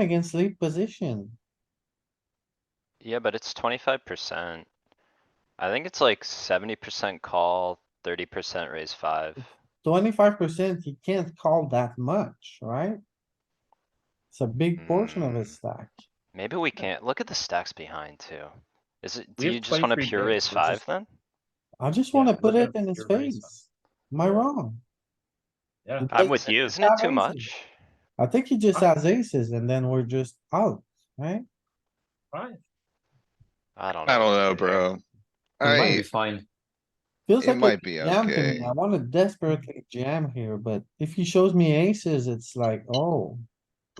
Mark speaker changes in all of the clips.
Speaker 1: against lead position.
Speaker 2: Yeah, but it's twenty-five percent. I think it's like seventy percent call, thirty percent raise five.
Speaker 1: Twenty-five percent, he can't call that much, right? It's a big portion of his
Speaker 2: Mm.
Speaker 1: stack.
Speaker 2: Maybe we can't, look at the stacks behind too. Is it,
Speaker 3: We
Speaker 2: do
Speaker 3: have
Speaker 2: you just wanna
Speaker 3: 23
Speaker 2: pure
Speaker 3: bigs,
Speaker 2: raise
Speaker 3: which is-
Speaker 2: five then?
Speaker 1: I just wanna
Speaker 3: Yeah,
Speaker 1: put it
Speaker 3: look at
Speaker 1: in his
Speaker 3: your raise
Speaker 1: face. Am I
Speaker 3: Yeah.
Speaker 1: wrong?
Speaker 3: Yeah,
Speaker 1: It
Speaker 2: I'm
Speaker 1: takes-
Speaker 2: with you, isn't
Speaker 1: Yeah,
Speaker 2: it too
Speaker 1: I'm with you.
Speaker 2: much?
Speaker 1: I think he just has aces and then we're just out, right?
Speaker 3: fine.
Speaker 2: I don't know.
Speaker 4: I don't know,
Speaker 2: dude.
Speaker 4: bro.
Speaker 5: It might
Speaker 4: I,
Speaker 5: be fine.
Speaker 1: Feels
Speaker 4: it
Speaker 1: like a
Speaker 4: might be
Speaker 1: jam to me.
Speaker 4: okay.
Speaker 1: I wanna desperately jam here, but if he shows me aces, it's like, oh,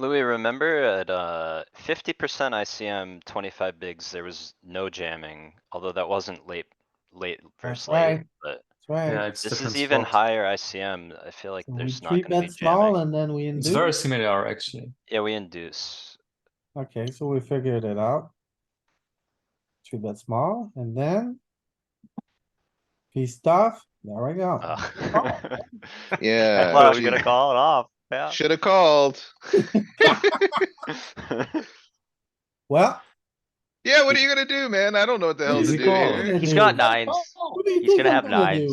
Speaker 2: Louis, remember at uh fifty percent ICM, twenty-five bigs, there was no jamming, although that wasn't late, late versus late,
Speaker 1: right.
Speaker 2: but.
Speaker 1: that's right.
Speaker 5: Yeah, it's
Speaker 2: This
Speaker 5: different
Speaker 2: is even
Speaker 5: spots.
Speaker 2: higher ICM, I feel like
Speaker 1: So We
Speaker 2: there's not
Speaker 1: three
Speaker 2: gonna be
Speaker 1: bet small
Speaker 2: jamming.
Speaker 1: and then we
Speaker 5: It's very
Speaker 1: induce.
Speaker 5: similar actually.
Speaker 2: Yeah, we induce.
Speaker 1: Okay, so we figured it out. Three bet small and then. Piece off, there we go.
Speaker 2: Uh,
Speaker 4: Yeah.
Speaker 2: Well, we're gonna call it off, yeah.
Speaker 4: Should've called.
Speaker 1: Well.
Speaker 4: Yeah, what are you gonna do, man? I don't know what the hell to
Speaker 5: Easy
Speaker 4: do
Speaker 5: call.
Speaker 4: here.
Speaker 1: He's
Speaker 6: got nines. He's gonna have nines.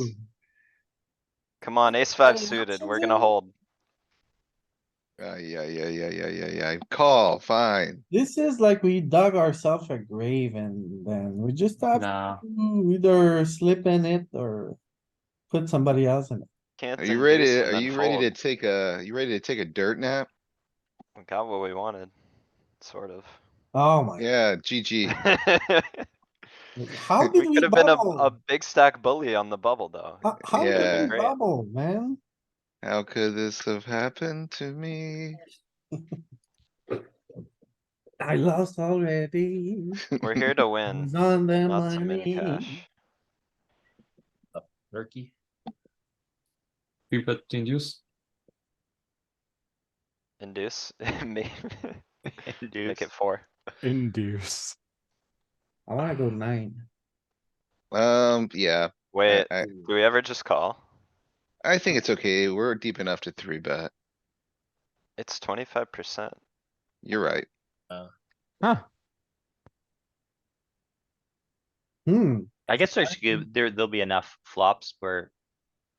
Speaker 2: Come on, ace five
Speaker 6: Oh,
Speaker 2: suited,
Speaker 6: that's
Speaker 2: we're
Speaker 6: a
Speaker 2: gonna
Speaker 6: zero.
Speaker 2: hold.
Speaker 4: Uh, yeah, yeah, yeah, yeah, yeah, yeah. Call, fine.
Speaker 1: This is like we dug ourselves a grave and then we just
Speaker 2: Uh,
Speaker 1: have
Speaker 5: Nah,
Speaker 1: to either slip in it or. Put somebody else in it.
Speaker 2: Can't
Speaker 4: Are you
Speaker 2: induce
Speaker 4: ready?
Speaker 2: and
Speaker 4: Are
Speaker 2: then
Speaker 4: you ready
Speaker 2: fold.
Speaker 4: to take a, you ready to take a dirt nap?
Speaker 2: We Got what we wanted, sort of.
Speaker 1: Oh my,
Speaker 4: Yeah, GG.
Speaker 1: how did
Speaker 2: We
Speaker 1: we
Speaker 2: could have been a, a
Speaker 1: bubble?
Speaker 2: big stack bully on the bubble, though.
Speaker 1: How- How did we
Speaker 2: yeah.
Speaker 1: bubble, man?
Speaker 4: How could this have happened to me?
Speaker 1: I lost already.
Speaker 2: We're here to
Speaker 1: I
Speaker 2: win,
Speaker 1: was on the
Speaker 2: not so many
Speaker 1: money.
Speaker 2: cash.
Speaker 3: Turkey.
Speaker 5: three bet to induce.
Speaker 2: Induce, me,
Speaker 6: Induce.
Speaker 2: make it four.
Speaker 6: Induce.
Speaker 1: I wanna go nine.
Speaker 4: Um, yeah, I,
Speaker 2: Wait,
Speaker 4: I,
Speaker 2: do we ever just call?
Speaker 4: I think it's okay. We're deep enough to three bet.
Speaker 2: It's twenty-five percent.
Speaker 4: You're right.
Speaker 1: Hmm,
Speaker 6: I guess there's, gonna- there, there'll be enough flops where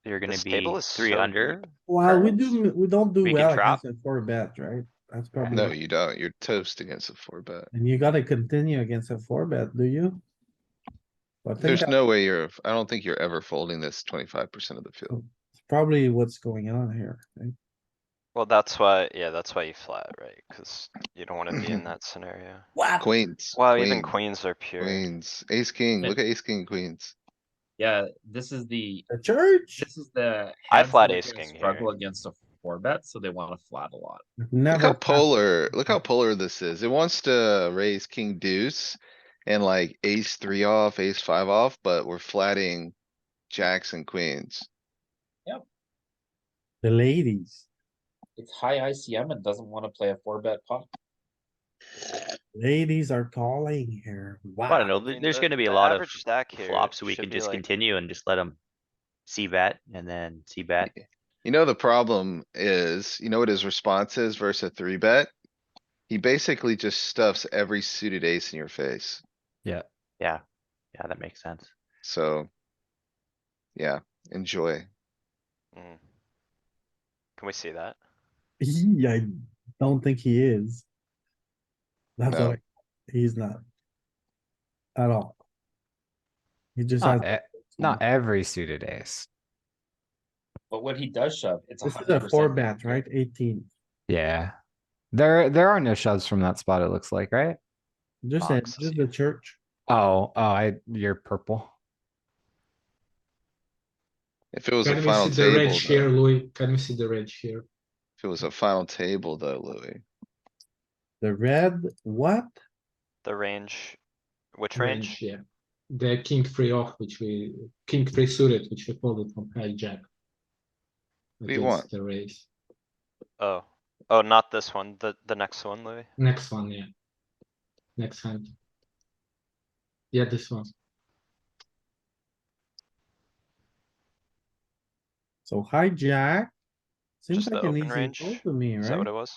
Speaker 6: you're gonna
Speaker 2: This
Speaker 6: be
Speaker 2: table is so
Speaker 6: three under.
Speaker 2: deep.
Speaker 1: well, we
Speaker 2: Turns.
Speaker 1: do, we don't do
Speaker 6: We can
Speaker 1: well
Speaker 6: drop.
Speaker 1: against a four bet, right? That's probably,
Speaker 4: No,
Speaker 1: what-
Speaker 4: you don't. You're toast against a four bet.
Speaker 1: and you gotta continue against a four bet, do you? I think
Speaker 4: There's
Speaker 1: that's
Speaker 4: no way you're, I don't think you're ever folding this twenty-five percent of the field.
Speaker 1: probably what's going on here. right?
Speaker 2: Well, that's why, yeah, that's why you flat, right? Cuz you don't wanna be in that scenario.
Speaker 4: Queens.
Speaker 2: Wow, even
Speaker 4: queen,
Speaker 2: queens are pure.
Speaker 4: Queens, ace, king. Look at ace, king, queens.
Speaker 3: Yeah, this is the,
Speaker 1: The church?
Speaker 3: this is the.
Speaker 2: I
Speaker 3: hands
Speaker 2: flat
Speaker 3: that are
Speaker 2: ace
Speaker 3: gonna
Speaker 2: king
Speaker 3: Struggle
Speaker 2: here.
Speaker 3: against a four bet, so they wanna flat a lot.
Speaker 4: Look how
Speaker 1: Never.
Speaker 7: uh,
Speaker 4: polar, look how polar this is. It wants to raise king deuce and like ace three off, ace five off, but we're flatting jacks and queens.
Speaker 1: The ladies,
Speaker 3: It's high ICM and doesn't wanna play a four bet pot.
Speaker 1: ladies are calling here.
Speaker 6: I don't
Speaker 1: Wow.
Speaker 6: know,
Speaker 2: I
Speaker 6: there-
Speaker 2: mean,
Speaker 6: there's
Speaker 2: the-
Speaker 6: gonna be a
Speaker 2: the
Speaker 6: lot of
Speaker 2: average stack here
Speaker 6: flops, we
Speaker 2: should
Speaker 6: can
Speaker 2: be
Speaker 6: just
Speaker 2: like-
Speaker 6: continue and just let them see bet and then see bet.
Speaker 4: You know, the problem is, you know what his response is versus a three bet? He basically just stuffs every suited ace in your face,
Speaker 6: Yeah, yeah, that makes sense.
Speaker 4: so. Yeah, enjoy.
Speaker 2: Mm. Can we see that?
Speaker 1: He, I don't think he is. That's
Speaker 4: No.
Speaker 1: all, he's not. At all. He just has.
Speaker 8: Not, e- not every suited ace.
Speaker 3: But when he does shove, it's a
Speaker 1: This is
Speaker 3: hundred
Speaker 1: a
Speaker 3: percent.
Speaker 1: four bet, right? Eighteen,
Speaker 8: Yeah. There, there are no shoves from that spot, it looks like, right?
Speaker 1: just a,
Speaker 2: Boxes,
Speaker 1: just
Speaker 2: yeah.
Speaker 1: the church.
Speaker 8: Oh, oh, I, you're purple.
Speaker 4: If it was a
Speaker 7: Can we
Speaker 4: final
Speaker 7: see the
Speaker 4: table,
Speaker 7: red
Speaker 4: though-
Speaker 7: here, Louis? Can we see the red here?
Speaker 4: if it was a final table though, Louis,
Speaker 1: The red, what?
Speaker 2: The range, which
Speaker 7: Range,
Speaker 2: range?
Speaker 7: yeah. The king three off, which we, king three suited, which we folded from hijack.
Speaker 4: do you want?
Speaker 7: The raise.
Speaker 2: Oh, oh, not this one, the, the next one, Louis.
Speaker 7: Next one, yeah. Next hand. Yeah, this one.
Speaker 1: So hijack. Seems
Speaker 2: Just the
Speaker 1: like an
Speaker 2: open
Speaker 1: easy
Speaker 2: range?
Speaker 1: fold to me,
Speaker 2: Is that
Speaker 1: right?
Speaker 2: what it was?